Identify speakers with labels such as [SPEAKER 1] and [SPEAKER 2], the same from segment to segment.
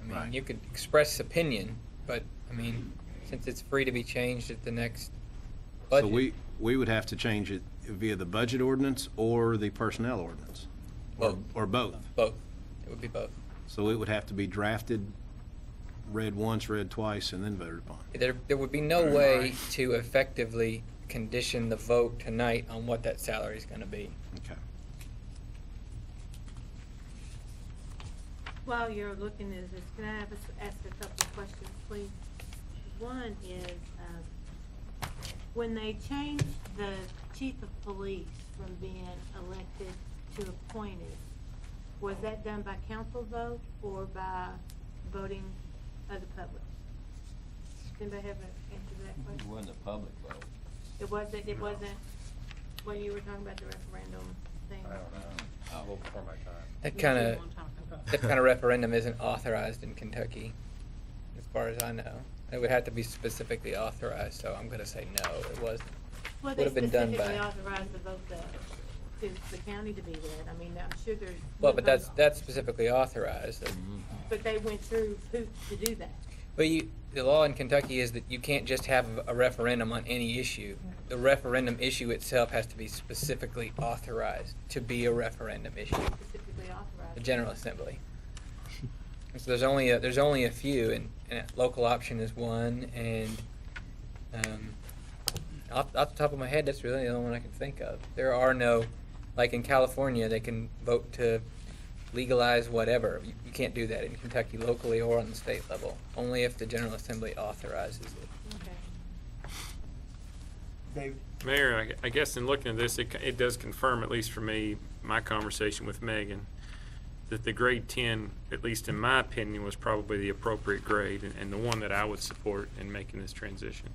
[SPEAKER 1] I mean,
[SPEAKER 2] Right.
[SPEAKER 1] you could express opinion, but I mean, since it's free to be changed at the next
[SPEAKER 2] So
[SPEAKER 1] budget.
[SPEAKER 2] we, we would have to change it via the budget ordinance or the personnel ordinance? Or-
[SPEAKER 1] Both.
[SPEAKER 2] Or both?
[SPEAKER 1] Both. It would be both.
[SPEAKER 2] So it would have to be drafted, read once, read twice, and then voted upon?
[SPEAKER 1] There, there would be no way to effectively condition the vote tonight on what that salary is going to be.
[SPEAKER 2] Okay.
[SPEAKER 3] While you're looking at this, can I have, us- ask a couple of questions, please? One is, um, when they changed the chief of police from being elected to appointed, was that done by council vote or by voting of the public? Does anybody have an answer to that
[SPEAKER 4] It
[SPEAKER 3] question?
[SPEAKER 4] wasn't a public vote.
[SPEAKER 3] It wasn't, it wasn't, when you were talking about the referendum thing?
[SPEAKER 5] I
[SPEAKER 4] Um,
[SPEAKER 5] don't
[SPEAKER 4] oh.
[SPEAKER 5] know. Well, before my time.
[SPEAKER 1] That kind of, that kind of
[SPEAKER 3] referendum.
[SPEAKER 1] referendum isn't authorized in Kentucky, as far as I know. It would have to be specifically authorized, so I'm going to say no, it wasn't.
[SPEAKER 3] Well,
[SPEAKER 1] Would
[SPEAKER 3] they
[SPEAKER 1] have been done
[SPEAKER 3] specifically
[SPEAKER 1] by.
[SPEAKER 3] authorized the vote the, to the county to be that, I mean, I'm sure there's.
[SPEAKER 1] Well, but that's, that's specifically authorized.
[SPEAKER 2] Mm-hmm.
[SPEAKER 3] But they went through hoops to do that.
[SPEAKER 1] But you, the law in Kentucky is that you can't just have a referendum on any issue. The referendum issue itself has to be specifically authorized to be a referendum issue,
[SPEAKER 3] specifically authorized.
[SPEAKER 1] the General Assembly. And So there's only, a- there's only a few, and, and local option is one, and, um, off, off the top of my head, that's really the only one I can think of. There are no, like in California, they can vote to legalize whatever. You, you can't do that in Kentucky locally or on the state level, only if the General Assembly authorizes it.
[SPEAKER 3] Okay.
[SPEAKER 6] Mayor, I- I guess in looking at this, it, it does confirm, at least for me, my conversation with Megan, that the grade 10, at least in my opinion, was probably the appropriate grade and- and the one that I would support in making this transition.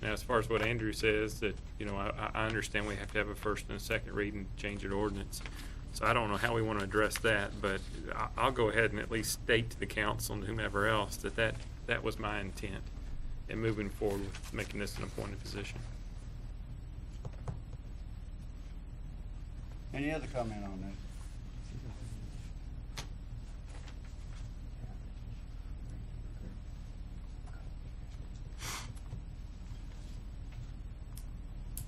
[SPEAKER 6] Now, as far as what Andrew says, that, you know, I, I understand we have to have a first and a second read and change an ordinance. So I don't know how we want to address that, but I, I'll go ahead and at least state to the council and whomever else that that, that was my intent in moving forward with making this an appointed position.
[SPEAKER 5] Any other comment on that?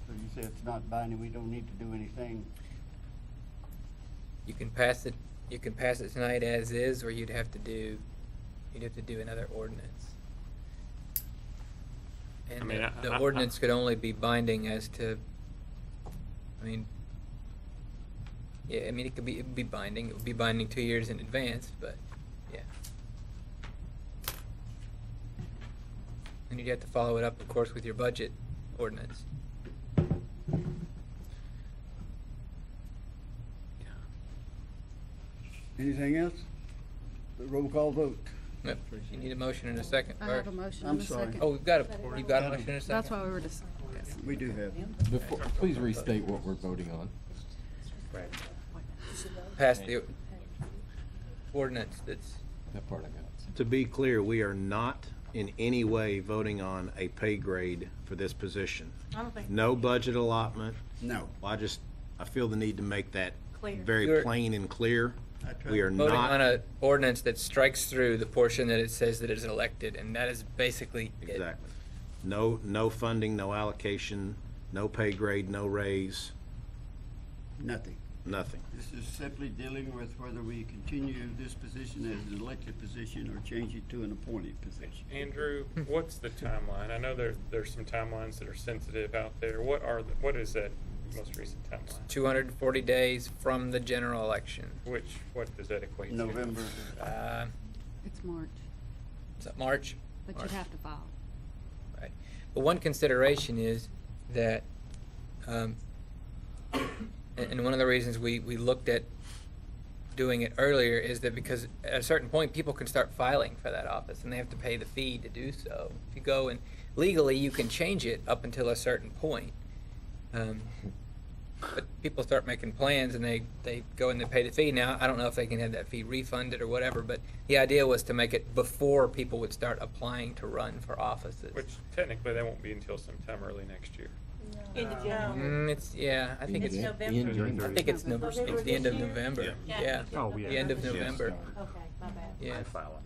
[SPEAKER 7] So you say it's not binding, we don't need to do anything.
[SPEAKER 1] You can pass it, you can pass it tonight as is, or you'd have to do, you'd have to do another ordinance.
[SPEAKER 6] I
[SPEAKER 1] And
[SPEAKER 6] mean,
[SPEAKER 1] the-
[SPEAKER 6] I- I-
[SPEAKER 1] the
[SPEAKER 6] I-
[SPEAKER 1] ordinance could only be binding as to, I mean, yeah, I mean, it could be, it'd be binding, it would be binding two years in advance, but, yeah. And you'd have to follow it up, of course, with your budget ordinance.
[SPEAKER 7] Anything else? The roll call vote.
[SPEAKER 1] Yep, You need a motion in a second,
[SPEAKER 8] I
[SPEAKER 1] or-
[SPEAKER 8] have a motion
[SPEAKER 7] I'm
[SPEAKER 8] and a
[SPEAKER 7] sorry.
[SPEAKER 8] second.
[SPEAKER 1] Oh, we've got a, we've got a motion in a second?
[SPEAKER 8] That's why we were discussing.
[SPEAKER 7] We do have.
[SPEAKER 9] Before, please restate what we're voting on.
[SPEAKER 1] pass the ordinance that's,
[SPEAKER 9] That part I got.
[SPEAKER 2] To be clear, we are not in any way voting on a pay grade for this position.
[SPEAKER 3] I don't think.
[SPEAKER 2] No budget allotment.
[SPEAKER 7] No.
[SPEAKER 2] Well, I just, I feel the need to make that
[SPEAKER 3] Clear.
[SPEAKER 2] very
[SPEAKER 1] You're-
[SPEAKER 2] plain and clear.
[SPEAKER 7] That's
[SPEAKER 2] We
[SPEAKER 7] right.
[SPEAKER 2] are
[SPEAKER 1] voting on
[SPEAKER 2] not,
[SPEAKER 1] a ordinance that strikes through the portion that it says that is elected, and that is basically it.
[SPEAKER 2] exactly. No, no funding, no allocation, no pay grade, no raise,
[SPEAKER 7] Nothing.
[SPEAKER 2] nothing.
[SPEAKER 7] This is simply dealing with whether we continue this position as an elected position or change it to an appointed position.
[SPEAKER 6] Andrew, what's the timeline? I know there, there's some timelines that are sensitive out there. What are, the- what is that most recent timeline?
[SPEAKER 1] Two hundred and forty days from the general election.
[SPEAKER 6] Which, what does that equate to?
[SPEAKER 7] November.
[SPEAKER 1] Uh,
[SPEAKER 8] It's March,
[SPEAKER 1] is that March?
[SPEAKER 8] but
[SPEAKER 1] March.
[SPEAKER 8] you'd have to file.
[SPEAKER 1] Right. But one consideration is that, um, and, and one of the reasons we, we looked at doing it earlier is that because at a certain point, people can start filing for that office and they have to pay the fee to do so. If you go and legally, you can change it up until a certain point. Um, but people start making plans and they, they go and they pay the fee. Now, I don't know if they can have that fee refunded or whatever, but the idea was to make it before people would start applying to run for offices.
[SPEAKER 6] Which technically that won't be until sometime early next year.
[SPEAKER 3] In the general.
[SPEAKER 1] Mm, it's yeah. I think
[SPEAKER 3] It's
[SPEAKER 1] it's
[SPEAKER 9] Yeah.
[SPEAKER 3] November.
[SPEAKER 9] Ian, you're in
[SPEAKER 1] I
[SPEAKER 9] there.
[SPEAKER 1] think it's,
[SPEAKER 8] November
[SPEAKER 1] November, it's the
[SPEAKER 3] this
[SPEAKER 1] end of
[SPEAKER 3] year?
[SPEAKER 1] November.
[SPEAKER 2] Yeah.
[SPEAKER 1] Yeah.
[SPEAKER 3] Oh,
[SPEAKER 1] The end of November.
[SPEAKER 3] Okay, my bad.
[SPEAKER 1] Yeah.
[SPEAKER 5] file